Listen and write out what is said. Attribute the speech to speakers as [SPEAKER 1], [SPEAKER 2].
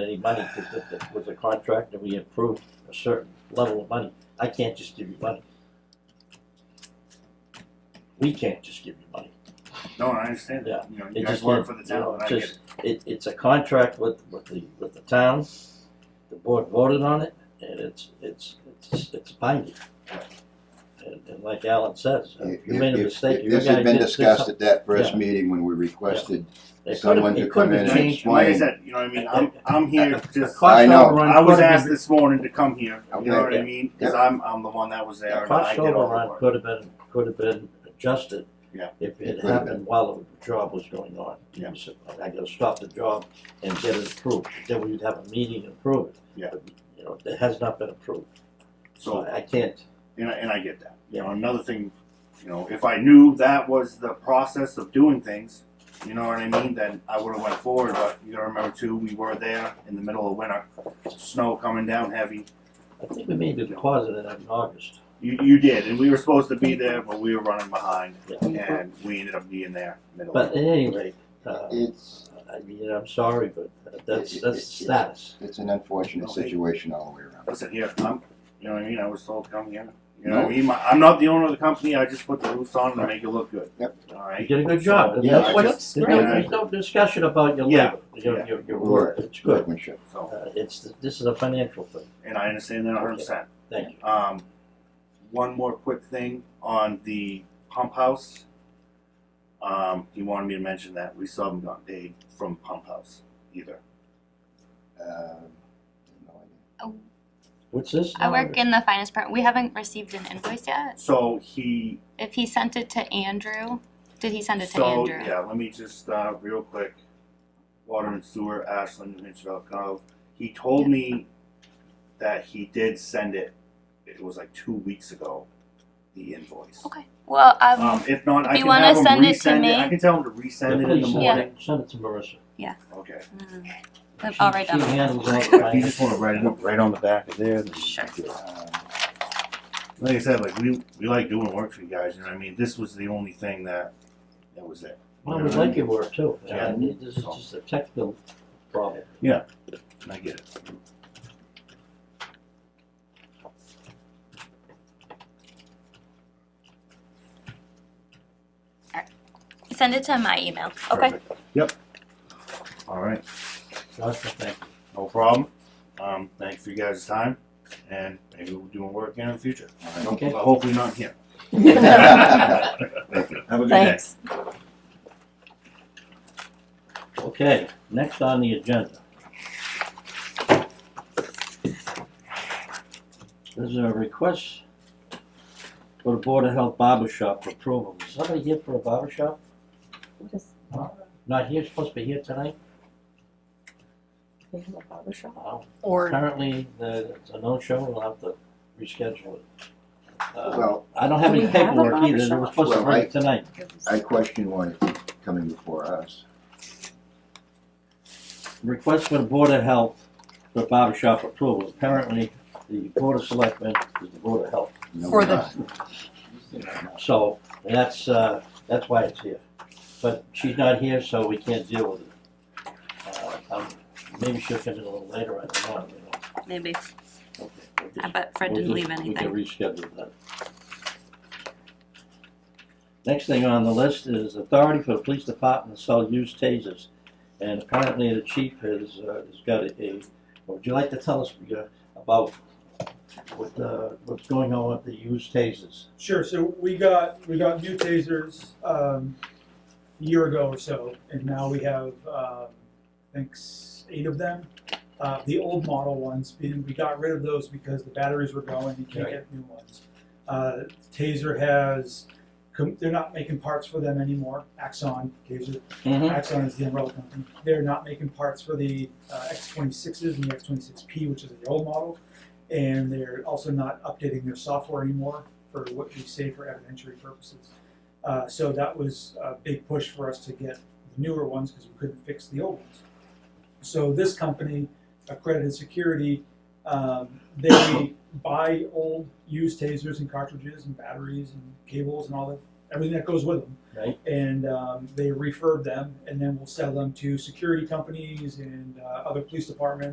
[SPEAKER 1] any money because it it was a contract and we approved a certain level of money. I can't just give you money. We can't just give you money.
[SPEAKER 2] No, I understand
[SPEAKER 1] Yeah.
[SPEAKER 2] that. You know,
[SPEAKER 1] It
[SPEAKER 2] you guys
[SPEAKER 1] just didn't-
[SPEAKER 2] work for the
[SPEAKER 1] you know,
[SPEAKER 2] town, and I get
[SPEAKER 1] just-
[SPEAKER 2] it.
[SPEAKER 1] It, it's a contract with, with the, with the town. The board voted on it and it's, it's, it's, it's binding. And, and like Alan says, uh,
[SPEAKER 3] If-
[SPEAKER 1] you made a
[SPEAKER 3] if-
[SPEAKER 1] mistake,
[SPEAKER 3] if
[SPEAKER 1] you
[SPEAKER 3] This
[SPEAKER 1] gotta
[SPEAKER 3] had been
[SPEAKER 1] get- do
[SPEAKER 3] discussed
[SPEAKER 1] something.
[SPEAKER 3] at that first
[SPEAKER 1] Yeah.
[SPEAKER 3] meeting when we requested,
[SPEAKER 1] It could've-
[SPEAKER 3] someone to
[SPEAKER 1] it
[SPEAKER 3] come
[SPEAKER 1] could've
[SPEAKER 3] in and
[SPEAKER 1] changed.
[SPEAKER 3] explain.
[SPEAKER 2] Like I said, you know what I mean? I'm, I'm here just,
[SPEAKER 1] Cost
[SPEAKER 3] I know.
[SPEAKER 1] overrun
[SPEAKER 2] I was
[SPEAKER 1] could've been-
[SPEAKER 2] asked this morning to come here, you know
[SPEAKER 3] Okay.
[SPEAKER 2] what I mean? Cause I'm, I'm the one that was there
[SPEAKER 1] The
[SPEAKER 2] and I
[SPEAKER 1] cost
[SPEAKER 2] did all the
[SPEAKER 1] overrun
[SPEAKER 2] work.
[SPEAKER 1] could have been, could have been adjusted.
[SPEAKER 2] Yeah.
[SPEAKER 1] If
[SPEAKER 3] It
[SPEAKER 1] it
[SPEAKER 3] could have
[SPEAKER 1] happened while the job was going on.
[SPEAKER 2] Yeah.
[SPEAKER 1] So, I gotta stop the job and get it approved, then we'd have a meeting and approve it.
[SPEAKER 2] Yeah.
[SPEAKER 1] But, You know, it has not been approved, so
[SPEAKER 2] So,
[SPEAKER 1] I I can't,
[SPEAKER 2] and I, and I get that. You know, another thing, you know, if I knew that was the process of doing things, you know what I mean, then I would've went forward, but you gotta remember too, we were there in the middle of winter, snow coming down heavy.
[SPEAKER 1] I think we made the deposit in in August.
[SPEAKER 2] You, you did, and we were supposed to be there, but we were running behind
[SPEAKER 1] Yeah.
[SPEAKER 2] and we ended up being there middle of.
[SPEAKER 1] But at any rate, uh,
[SPEAKER 3] it's,
[SPEAKER 1] I mean, I'm sorry, but that's,
[SPEAKER 3] It- it-
[SPEAKER 1] that's the status.
[SPEAKER 3] it's an unfortunate
[SPEAKER 2] Okay.
[SPEAKER 3] situation all the way around.
[SPEAKER 2] listen here, I'm, you know what I mean? I was told come here. You know what I mean? My, I'm not the owner of the company. I just put the roofs on to make it look good.
[SPEAKER 3] Yep.
[SPEAKER 2] All
[SPEAKER 1] You
[SPEAKER 2] right.
[SPEAKER 1] did a good job, and
[SPEAKER 3] Yeah,
[SPEAKER 1] that's
[SPEAKER 3] it
[SPEAKER 1] what,
[SPEAKER 4] looks
[SPEAKER 1] there's no-
[SPEAKER 2] great.
[SPEAKER 1] there's no discussion about your
[SPEAKER 2] Yeah.
[SPEAKER 1] labor, your,
[SPEAKER 2] Yeah.
[SPEAKER 1] your, your
[SPEAKER 3] Work.
[SPEAKER 1] work, it's good.
[SPEAKER 3] Workmanship.
[SPEAKER 2] So,
[SPEAKER 1] Uh, it's, this is a financial thing,
[SPEAKER 2] and I understand that 100. percent
[SPEAKER 1] thank you.
[SPEAKER 2] Um, one more quick thing on the pump house. Um, he wanted me to mention that we still haven't gotten paid from pump house either.
[SPEAKER 3] Uh, um, no idea.
[SPEAKER 1] What's this?
[SPEAKER 4] I work in the finance department. We haven't received an invoice yet.
[SPEAKER 2] So he.
[SPEAKER 4] If he sent it to Andrew, did he send it to
[SPEAKER 2] so
[SPEAKER 4] Andrew?
[SPEAKER 2] yeah, let me just uh, real quick. Water and sewer, Ashland, New Hampshire, Elk Grove. He told me that he did send it. It was like two weeks ago. The invoice.
[SPEAKER 4] Okay. Well, um,
[SPEAKER 2] Um, if not, I
[SPEAKER 4] you
[SPEAKER 2] can
[SPEAKER 4] wanna
[SPEAKER 2] have him
[SPEAKER 4] send it to
[SPEAKER 2] resend
[SPEAKER 4] me?
[SPEAKER 2] I can tell him to resend it in the
[SPEAKER 1] Please send
[SPEAKER 2] morning.
[SPEAKER 1] it, send it to Marissa.
[SPEAKER 2] Okay.
[SPEAKER 1] Um,
[SPEAKER 4] mm,
[SPEAKER 1] She-
[SPEAKER 4] I'll write that.
[SPEAKER 1] She
[SPEAKER 4] one.
[SPEAKER 1] handles all the
[SPEAKER 2] If you just
[SPEAKER 1] finance.
[SPEAKER 2] want to write it up.
[SPEAKER 5] right on the back of there.
[SPEAKER 4] Sure.
[SPEAKER 3] Um,
[SPEAKER 2] Like I said, like we we like doing work for you guys. You know, what I mean, this was the only thing that that was it.
[SPEAKER 1] Well, we like your work too,
[SPEAKER 2] Yeah.
[SPEAKER 1] I mean, this is just a technical problem.
[SPEAKER 2] And I get it.
[SPEAKER 4] Send it to my email. Okay.
[SPEAKER 2] Perfect. Yep. All right.
[SPEAKER 1] Joshua, thank you.
[SPEAKER 2] No problem. Um, thanks for you guys' time, and maybe we'll do work again in the future.
[SPEAKER 1] Okay.
[SPEAKER 2] But hopefully not here.
[SPEAKER 5] Have a good day.
[SPEAKER 4] Thanks.
[SPEAKER 1] Okay, next on the agenda. There's a request for the Board of Health barber shop for approval. Is somebody here for a barber shop?
[SPEAKER 6] What is
[SPEAKER 1] Not here, supposed to be here tonight?
[SPEAKER 6] they have a barber shop?
[SPEAKER 1] Well,
[SPEAKER 6] Or
[SPEAKER 1] Currently, the, it's a no-show, we'll have to reschedule it. Uh,
[SPEAKER 3] Well,
[SPEAKER 1] I don't have
[SPEAKER 6] Do
[SPEAKER 1] any
[SPEAKER 6] we have a
[SPEAKER 1] paperwork
[SPEAKER 6] barber
[SPEAKER 1] either, they were
[SPEAKER 6] shop?
[SPEAKER 1] supposed to
[SPEAKER 3] Well,
[SPEAKER 1] bring
[SPEAKER 3] I-
[SPEAKER 1] it tonight.
[SPEAKER 3] I question why it's coming before us.
[SPEAKER 1] Request for the Board of Health for barber shop approval, apparently the Board of Selectmen is the Board of Health.
[SPEAKER 3] No,
[SPEAKER 6] For
[SPEAKER 3] we're
[SPEAKER 6] the-
[SPEAKER 3] not.
[SPEAKER 1] So that's, uh, that's why it's here. But she's not here, so we can't deal with it. Uh, um, Maybe she'll come in a little later, I don't know, you know.
[SPEAKER 4] Maybe.
[SPEAKER 1] Okay, we'll
[SPEAKER 4] I
[SPEAKER 1] just-
[SPEAKER 4] bet Fred
[SPEAKER 1] we'll
[SPEAKER 4] didn't
[SPEAKER 1] just-
[SPEAKER 4] leave anything.
[SPEAKER 1] We can reschedule that. Next thing on the list is authority for the police department to sell used tasers. And apparently the chief has, uh, has got a, a- would you like to tell us uh, about what, uh, what's going on with the used tasers?
[SPEAKER 7] Sure, so we got, we got new tasers, um, a year ago or so, and now we have, um, I think s- eight of them. Uh, the old model ones, we, we got rid of those because the batteries were going, you can't get new ones. Uh, Taser has, com- they're not making parts for them anymore, Axon, Taser, Axon is the umbrella company. They're not making parts for the uh, X26s and the X26P, which is the old model. And they're also not updating their software anymore for what we say for evidentiary purposes. Uh, so that was a big push for us to get the newer ones because we couldn't fix the old ones. So this company, Accredited Security, um, they buy old used tasers and cartridges and batteries and cables and all that everything that goes with them.
[SPEAKER 1] Right.
[SPEAKER 7] And um, they refurb them, and then we'll sell them to security companies and uh, other police departments.